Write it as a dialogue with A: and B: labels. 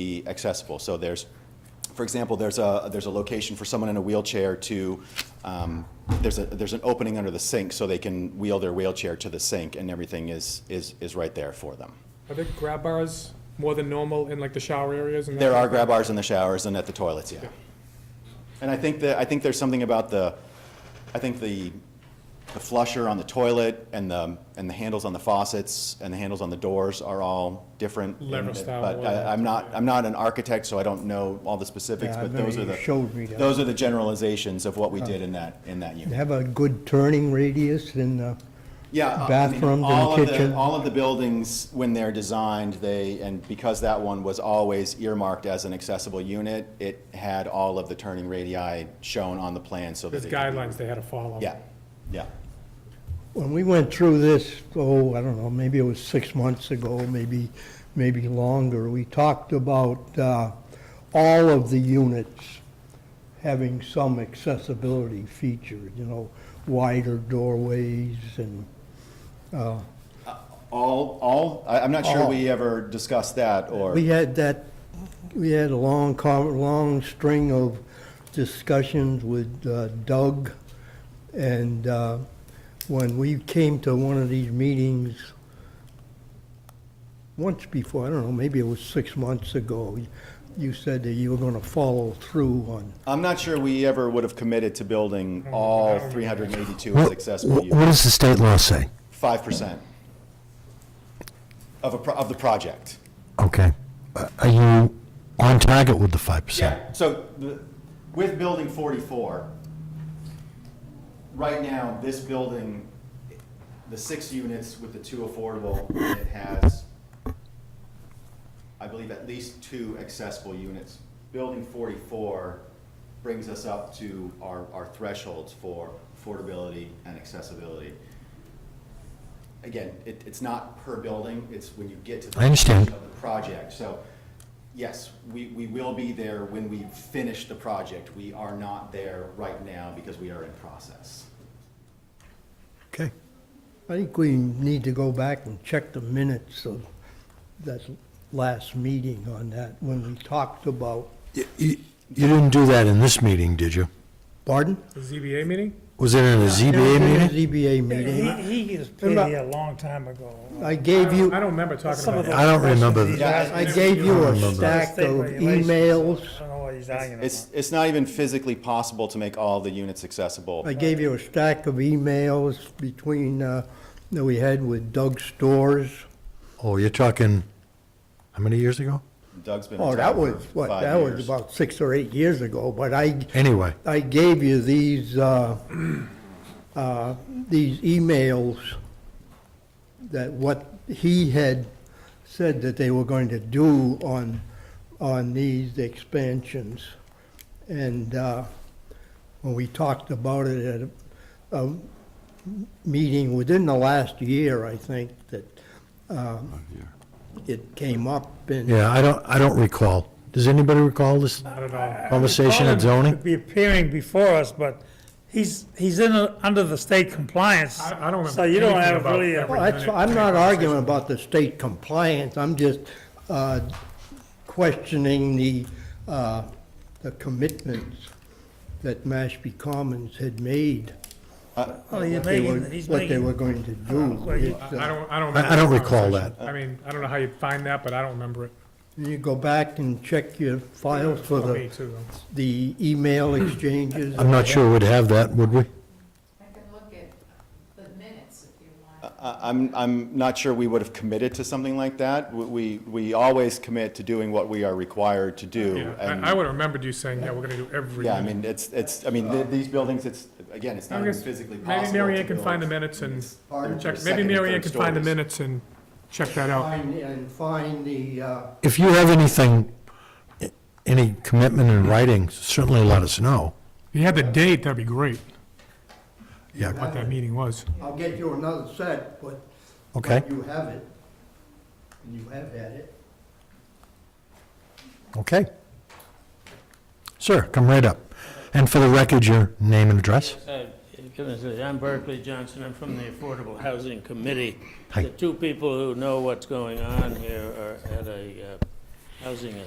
A: be accessible. So there's, for example, there's a, there's a location for someone in a wheelchair to, um, there's a, there's an opening under the sink so they can wheel their wheelchair to the sink and everything is, is, is right there for them.
B: Are there grab bars more than normal in like the shower areas? and that
A: There
B: kind
A: are
B: of
A: grab bars in the showers and at the toilets, yeah. And I think that, I think there's something about the, I think the, the flusher on the toilet and the, and the handles on the faucets and the handles on the doors are all different.
B: Lever style,
A: But
B: whatever.
A: I, I'm not, I'm not an architect, so I don't know all the specifics,
C: Yeah, I
A: but those are
C: remember
A: the,
C: you showed me that.
A: those are the generalizations of what we did in that, in that unit.
C: Have a good turning radius uh, in the,
A: Yeah. uh, I mean,
C: Bathrooms and
A: all of the-
C: kitchen.
A: All of the buildings, when they're designed, they, and because that one was always earmarked as an accessible unit, it had all of the turning radii shown on the plan so that.
B: There's
A: they could-
B: guidelines they had to follow.
A: Yeah, yeah.
C: when we went through this, oh, I don't know, maybe it was six months ago, maybe, maybe longer, we talked about uh, all of the units having some accessibility feature, you know, wider doorways and,
A: All, all, I, I'm not sure we ever discussed that or.
C: we had that, we had a long, com- long string of discussions with uh, Doug, and uh, when we came to one of these meetings once before, I don't know, maybe it was six months ago, you said that you were going to follow through on,
A: I'm not sure we ever would have committed to building all three hundred and eighty-two as
D: What,
A: accessible
D: what- what
A: units.
D: does the state law say?
A: Five percent of a, pro- of the project.
D: Okay. Uh, Are you on target with the 5%?
A: Yeah, so the- with building 44, right now, this building, the six units with the two affordable, it has, I believe, at least two accessible units. Building 44 brings us up to our, our thresholds for affordability and accessibility. Again, it, it's not per building, it's when you get to the
D: I understand.
A: of the project. So, yes, we, we will be there when we finish the project. We are not there right now because we are in process.
D: Okay.
C: I think we need to go back and check the minutes of that last meeting on that, when we talked about,
D: You you didn't do that in this meeting, did you?
C: pardon?
B: The ZBA meeting?
D: Was it in a ZBA meeting?
C: ZBA meeting.
E: He, he has been
C: Remember-
E: here a long time ago.
C: I
B: I
C: gave
B: don't, I
C: you,
B: don't remember talking
E: Some
B: about
E: of
B: that.
E: the
D: I don't remember
E: questions he's
A: that.
E: asking
C: I
E: us,
C: gave you a
D: I remember.
C: stack
E: state
C: of
E: regulations,
C: emails.
E: I don't know what he's arguing about.
A: It's, it's not even physically possible to make all the units accessible.
C: I gave you a stack of emails between, uh, that we had with Doug Stores.
D: Oh, you're talking, how many years ago?
A: Doug's been
C: Oh,
A: in
C: that
A: town
C: was,
A: for
C: what,
A: five
C: that was
A: years.
C: about six or eight years ago, but I,
D: Anyway,
C: I gave you these, uh, uh, these emails that what he had said that they were going to do on, on these expansions. And uh, when we talked about it at a- a meeting within the last year, I think, that um, it came up and.
D: yeah, I don't, I don't recall. Does anybody recall this
B: I don't know.
D: conversation at
E: He could
D: zoning?
E: Be appearing before us, but he's, he's in, a- under the state compliance.
B: I- I don't remember
E: So you don't
B: anything
E: have
B: about
E: really, a-
B: every-
C: Well, that's, I'm not arguing about the state compliance, I'm just uh, questioning the, uh, the commitments that Mashpee Commons had made.
E: well, Oh, he's
C: what they were-
E: making, he's
C: What they were
E: making,
C: going to do.
E: Well, you-
C: It's,
B: I
C: uh,
B: don't, I don't.
D: I- I don't
B: remember
D: recall
B: conversation. I mean, I don't know how you find that, but I don't remember it.
C: You go back and check your files for
B: Me
C: the,
B: too. though.
C: the email exchanges.
D: I'm not sure we'd have that, would we?
F: I can look at the minutes if you want.
A: I- I'm, I'm not sure we would have committed to something like that. We- We, we always commit to doing what we are required to do.
B: Yeah,
A: and-
B: I, I would have remembered you saying, yeah, we're gonna do every.
A: Yeah, I
B: unit.
A: mean, it's, it's, I mean, th- these buildings, it's, again, it's not
B: I
A: even
B: guess
A: physically possible
B: Maybe Mary
A: to
B: Ann can
A: build
B: find the minutes and
A: their- their
B: check, maybe
A: second and
B: Mary Ann
A: third
B: can find the
A: stories.
B: minutes and check that out.
C: Find- And find the, uh,
D: If you have anything, i- any commitment in writing, certainly let us know.
B: If you had the date, that'd be great,
D: Yeah,
B: what that meeting was.
C: I'll get you another set, but
D: okay,
C: but you have it, and you have had it.
D: okay. Sir, come right up. And for the record, your name and address?
G: Uh, goodness, I'm Berkeley Johnson, I'm from the Affordable Housing Committee.
D: Hi.
G: The two people who know what's going on here are at a uh, housing